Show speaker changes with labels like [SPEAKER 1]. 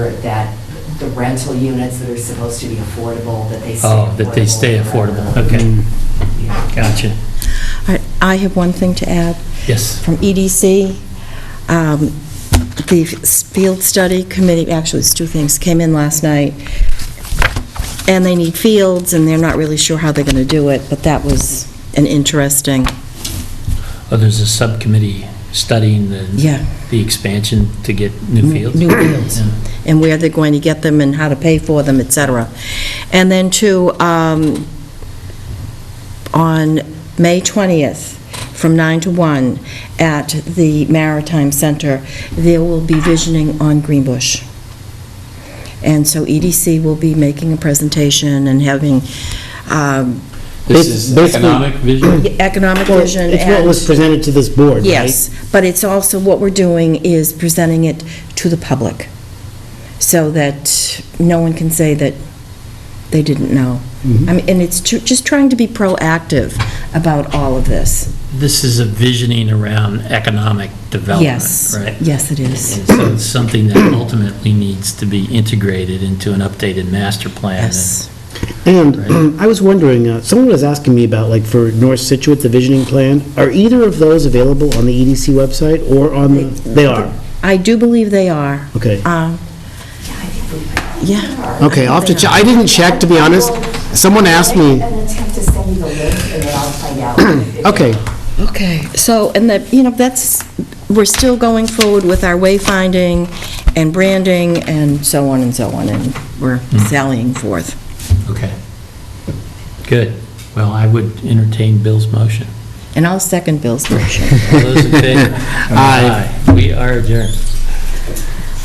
[SPEAKER 1] that the rental units that are supposed to be affordable, that they stay affordable.
[SPEAKER 2] Oh, that they stay affordable, okay,
[SPEAKER 1] Yeah.
[SPEAKER 2] gotcha.
[SPEAKER 3] I- I have one thing to add
[SPEAKER 2] Yes,
[SPEAKER 3] from EDC. Um, The field study committee, actually, it's two things, came in last night, and they need fields, and they're not really sure how they're going to do it, but that was an interesting,
[SPEAKER 2] oh, there's a subcommittee studying the,
[SPEAKER 3] yeah,
[SPEAKER 2] the expansion to get new fields?
[SPEAKER 3] New fields.
[SPEAKER 2] Yeah.
[SPEAKER 3] and where they're going to get them and how to pay for them, et cetera. And then two, um, on May 20th, from 9 to 1, at the Maritime Center, there will be visioning on Greenbush. And so EDC will be making a presentation and having um,
[SPEAKER 4] This
[SPEAKER 5] This
[SPEAKER 4] is
[SPEAKER 5] is basically-
[SPEAKER 4] economic vision?
[SPEAKER 3] economic
[SPEAKER 5] Well,
[SPEAKER 3] vision and...
[SPEAKER 5] It's what was presented to this board, right?
[SPEAKER 3] Yes, but it's also, what we're doing is presenting it to the public, so that no one can say that they didn't know.
[SPEAKER 5] Mm-hmm.
[SPEAKER 3] I mean, and it's ju- just trying to be proactive about all of this.
[SPEAKER 2] This is a visioning around economic development,
[SPEAKER 3] Yes,
[SPEAKER 2] right?
[SPEAKER 3] yes, it is.
[SPEAKER 2] And so it's something that ultimately needs to be integrated into an updated master plan.
[SPEAKER 3] Yes.
[SPEAKER 2] Right.
[SPEAKER 5] And I was wondering, uh, someone was asking me about, like, for North Situate, the visioning plan, are either of those available on the EDC website or on the, they are?
[SPEAKER 3] I do believe they are.
[SPEAKER 5] Okay.
[SPEAKER 3] Um, Yeah,
[SPEAKER 5] Okay, I'll have to, che- I didn't check, to be honest. Someone asked me,
[SPEAKER 1] An attempt to send you the link and then I'll find out.
[SPEAKER 5] okay,
[SPEAKER 3] okay. So, and that, you know, that's, we're still going forward with our wayfinding and branding and so on and so on, and we're
[SPEAKER 2] Hmm.
[SPEAKER 3] sallying forth.
[SPEAKER 2] Okay. Good. Well, I would entertain Bill's motion.
[SPEAKER 3] And I'll second Bill's motion.
[SPEAKER 2] All those in favor?
[SPEAKER 5] Aye.
[SPEAKER 2] We are adjourned.